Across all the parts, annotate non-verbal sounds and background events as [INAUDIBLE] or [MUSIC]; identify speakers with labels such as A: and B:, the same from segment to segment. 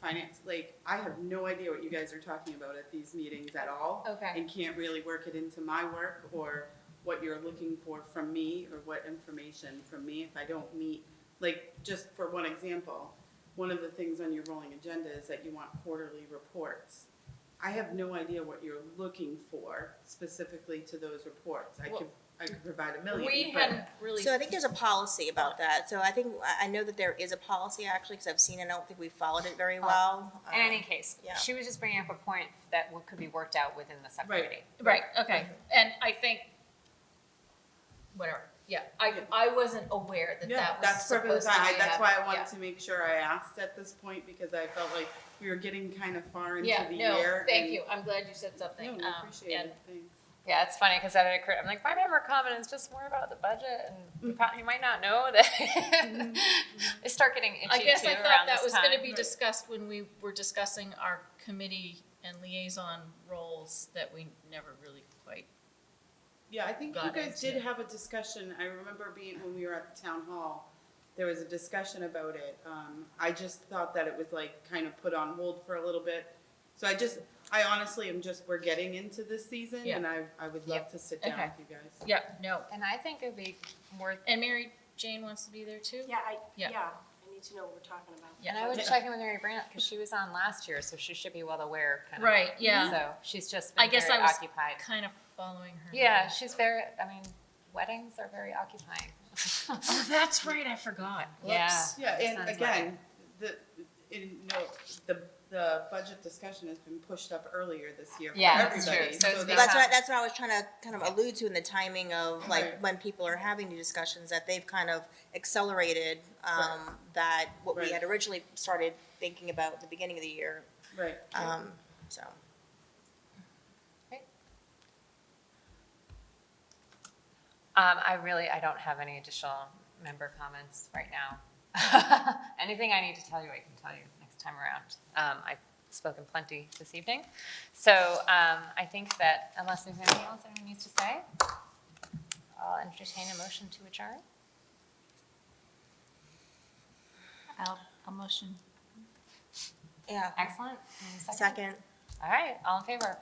A: finance, like, I have no idea what you guys are talking about at these meetings at all.
B: Okay.
A: And can't really work it into my work or what you're looking for from me or what information from me if I don't meet. Like, just for one example, one of the things on your rolling agenda is that you want quarterly reports. I have no idea what you're looking for specifically to those reports. I could, I could provide a million,
B: We
A: but-
B: hadn't really.
C: So I think there's a policy about that. So I think, I I know that there is a policy actually, because I've seen it, I don't think we followed it very well.
D: In any
C: Um,
D: case,
C: yeah.
D: she was just bringing up a point that w- could be worked out within the subcommittee.
B: Right, okay, and I think, whatever, yeah, I, I wasn't aware that
A: Yeah,
B: that was
A: that's perfectly
B: supposed to be.
A: fine. I- That's why I
B: want
A: wanted to make sure I asked at this point because I felt like we were getting kind of far into
B: Yeah,
A: the
B: no,
A: year.
B: thank
A: and-
B: you, I'm glad you said something.
A: No,
B: um,
A: I appreciate
B: and-
A: it, thanks.
D: Yeah, it's funny because that had occurred. I'm like, my member comment is just more about the budget, and you,
C: Mm-hmm.
D: probably, you might not know that [LAUGHS] they start getting itchy
B: I guess
D: too
B: I thought
D: around
B: that
D: this
B: was
D: time.
B: gonna be
A: Right.
B: discussed when we were discussing our committee and liaison roles that we never really quite.
A: Yeah, I think you
B: Got
A: guys
B: it,
A: did
B: yeah.
A: have a discussion. I remember being, when we were at the town hall, there was a discussion about it. Um, I just thought that it was like kind of put on hold for a little bit. So I just, I honestly am just, we're getting into this season
B: Yeah.
A: and I, I would love
D: Yep.
A: to sit down
B: Okay.
A: with you guys.
B: Yeah, no,
D: and I think it'd be worth.
B: and Mary Jane wants to be there too?
E: Yeah, I,
B: Yeah.
E: yeah, I need to know what we're talking about.
B: Yeah.
D: And I would
A: Yeah.
D: check in with Mary Brandt because she was on last year, so she should be well aware. Kind of. Mm-hmm.
B: Right, yeah.
D: So she's just. Been
B: I guess
D: very
B: I was-
D: occupied.
B: Kind of following her.
D: Yeah, she's very. I mean, weddings are very occupying.
B: Oh, [LAUGHS] that's right, I forgot.
D: Yeah.
B: Whoops.
A: Yeah, and
D: Sounds
A: again, the, in, no, the, the budget discussion has been pushed up earlier this year for
D: Yeah, that's
A: everybody.
D: true. So it's
A: So
D: been-
A: that's,
C: That's what, I- that's what I was trying to kind of allude to in the timing of
A: Right.
C: like when people are having new discussions, that they've kind of accelerated um, that, what we
A: Right.
C: had originally started thinking about at the beginning of the year.
A: right.
C: Um, So,
D: Um, I really, I don't have any additional member comments right now. [LAUGHS] Anything I need to tell you, I can tell you next time around. Um, I've spoken plenty this evening. So, um, I think that unless there's anything else anyone needs to say, I'll entertain a motion to adjourn.
B: I'll, I'll motion.
C: yeah,
D: Excellent. Any
C: second.
D: All right, all in favor?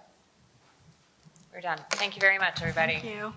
D: We're done. Thank you very much, everybody.
C: you.